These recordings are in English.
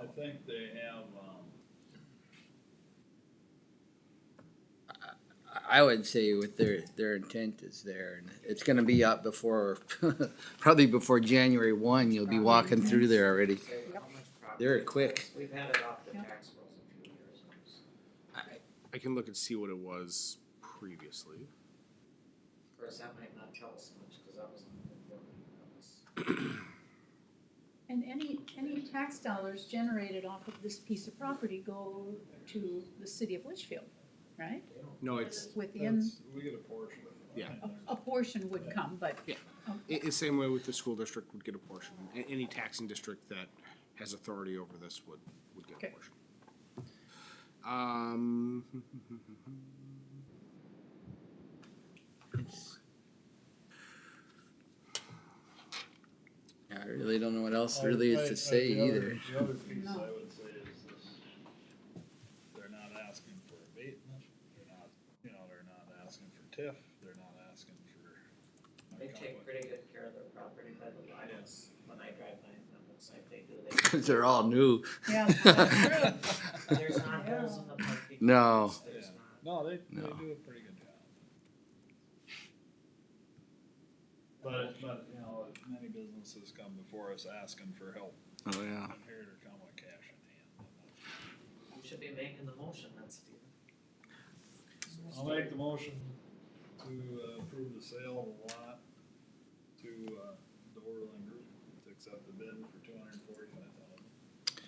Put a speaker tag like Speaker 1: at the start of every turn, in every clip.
Speaker 1: I think they have, um,
Speaker 2: I would say with their, their intent is there, and it's gonna be up before, probably before January one, you'll be walking through there already.
Speaker 3: Say how much property-
Speaker 2: They're quick.
Speaker 3: We've had it off the
Speaker 4: Yep.
Speaker 3: tax rolls a few years.
Speaker 5: I can look and see what it was previously.
Speaker 3: Of course, that might not tell us much, cause that was. not the building, that was-
Speaker 4: And any, any tax dollars generated off of this piece of property go to the city of Litchfield, right?
Speaker 3: they don't-
Speaker 5: No, it's
Speaker 4: Within,
Speaker 1: that's, we get a portion of it.
Speaker 5: Yeah.
Speaker 4: a, a portion would come, but. um,
Speaker 5: Yeah.
Speaker 4: Okay.
Speaker 5: it, it's same way with the school district would get a portion. A- any taxing district that has authority over this would would get
Speaker 4: Okay.
Speaker 5: a portion. Um,
Speaker 2: I really don't know what else
Speaker 1: I-
Speaker 2: really
Speaker 1: I-
Speaker 2: is
Speaker 1: I-
Speaker 2: to say
Speaker 1: Uh, the other-
Speaker 2: either.
Speaker 1: The other piece
Speaker 4: No.
Speaker 1: I would say is this, they're not asking for abatement, they're not, you know, they're not asking for TIF, they're not asking for.
Speaker 3: They take pretty good care of their property, but I don't, s- when I drive by, it looks like they do. They-
Speaker 2: Cause they're all new. Oh,
Speaker 4: Yeah.
Speaker 3: There's not holes in the parking.
Speaker 2: No.
Speaker 3: lots, There's
Speaker 1: Yeah.
Speaker 3: not.
Speaker 1: No, they, they
Speaker 2: No.
Speaker 1: do a pretty good job. But, but, you know, many businesses come before us asking for help,
Speaker 2: Oh, yeah.
Speaker 1: and here to come with cash in hand.
Speaker 3: You should be making the motion, that's the.
Speaker 1: I'll make the motion to uh, approve the sale of a lot to, uh, the Orland Group to accept the bid for two hundred and forty-five thousand.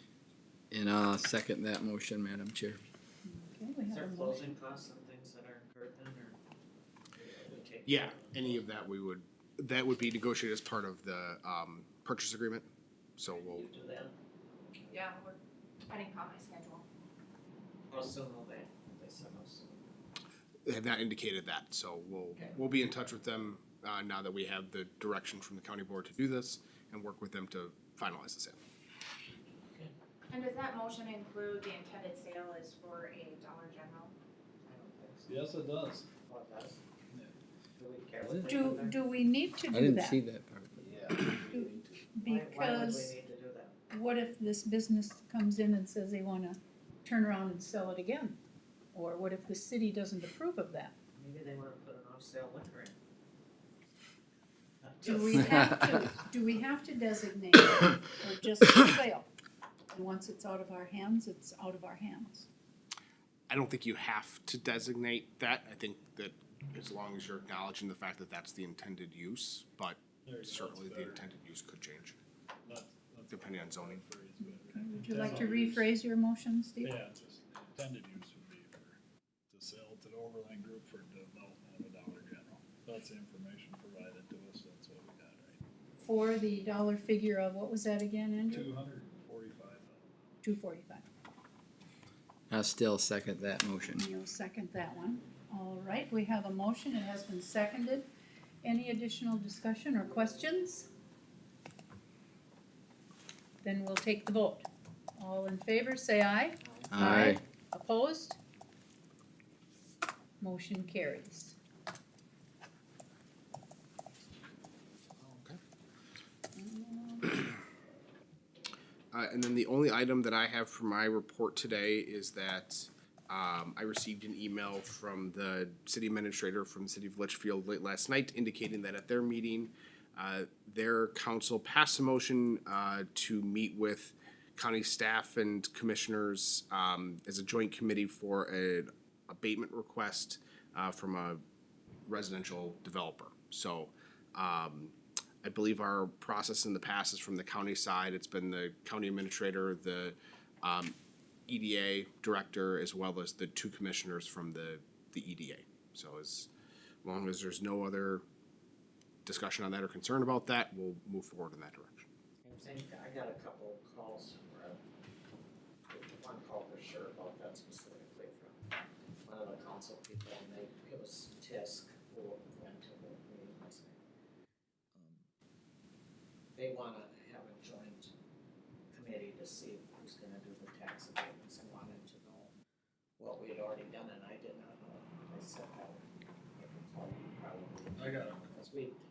Speaker 2: And I'll second that motion, Madam Chair.
Speaker 4: Okay, we
Speaker 3: Is
Speaker 4: have
Speaker 3: there
Speaker 4: a motion.
Speaker 3: closing costs and things that are incurred then, or? we take
Speaker 5: yeah,
Speaker 3: care of
Speaker 5: any of that we would that would be negotiated as part of the um, purchase agreement. So we'll
Speaker 3: You do that,
Speaker 6: Yeah, we're depending upon my schedule.
Speaker 3: how soon will they, they said how soon?
Speaker 5: they have not indicated that. So we'll
Speaker 3: Okay.
Speaker 5: we'll be in touch with them uh, now that we have the direction from the county board to do this and work with them to finalize the sale.
Speaker 6: And does that motion include the intended sale is for a Dollar General?
Speaker 3: I don't think so.
Speaker 1: Yes, it does.
Speaker 3: Well, that's.
Speaker 1: Yeah.
Speaker 3: Do we care what they do
Speaker 4: Do,
Speaker 3: there?
Speaker 4: do we need to
Speaker 2: I
Speaker 4: do
Speaker 2: didn't
Speaker 4: that?
Speaker 2: see that part.
Speaker 3: Why, why would we
Speaker 4: Because
Speaker 3: need to do that?
Speaker 4: what if this business comes in and says they wanna turn around and sell it again? Or what if the city doesn't approve of that?
Speaker 3: Maybe they wanna put an off-sale liquor in. Not
Speaker 4: Do
Speaker 3: just-
Speaker 4: we have to, do we have to designate it or just for sale? And once it's out of our hands, it's out of our hands.
Speaker 5: I don't think you have to designate that. I think that as long as you're acknowledging the fact that that's the intended use,
Speaker 1: There
Speaker 5: but
Speaker 1: you go, that's
Speaker 5: certainly the
Speaker 1: better.
Speaker 5: intended use could change.
Speaker 1: That's- that's
Speaker 5: depending on
Speaker 1: better.
Speaker 5: zoning.
Speaker 1: That phrase is better.
Speaker 4: Would you like to
Speaker 1: Intended use.
Speaker 4: rephrase your motion, Steve?
Speaker 1: Yeah, it's just intended use would be for, to sell to the Overland Group for development of a Dollar General. That's the information provided to us, that's what we got, right?
Speaker 4: For the dollar figure of, what was that again, Andrew?
Speaker 1: Two hundred and forty-five thousand.
Speaker 4: Two forty-five.
Speaker 2: I'll still second that motion.
Speaker 4: You'll second that one. All right, we have a motion. It has been seconded. Any additional discussion or questions? Then we'll take the vote. All in favor, say aye.
Speaker 2: Aye.
Speaker 4: Opposed? Motion carries.
Speaker 5: Okay. Uh, and then the only item that I have for my report today is that um, I received an email from the city administrator from the city of Litchfield late last night indicating that at their meeting, uh, their council passed a motion uh, to meet with county staff and commissioners um, as a joint committee for an abatement request uh, from a residential developer. So um, I believe our process in the past is from the county side. It's been the county administrator, the um, EDA director, as well as the two commissioners from the, the EDA. So as long as there's no other discussion on that or concern about that, we'll move forward in that direction.
Speaker 3: I think I got a couple calls where, one call for sure about that specifically from one of the council people, and they, it was Tisk who went to the meeting last night. Um, They wanna have a joint committee to see who's gonna do the tax abatements, and wanted to know what we had already done, and I did not know, I said that would, I could probably,
Speaker 1: I got it.
Speaker 3: because we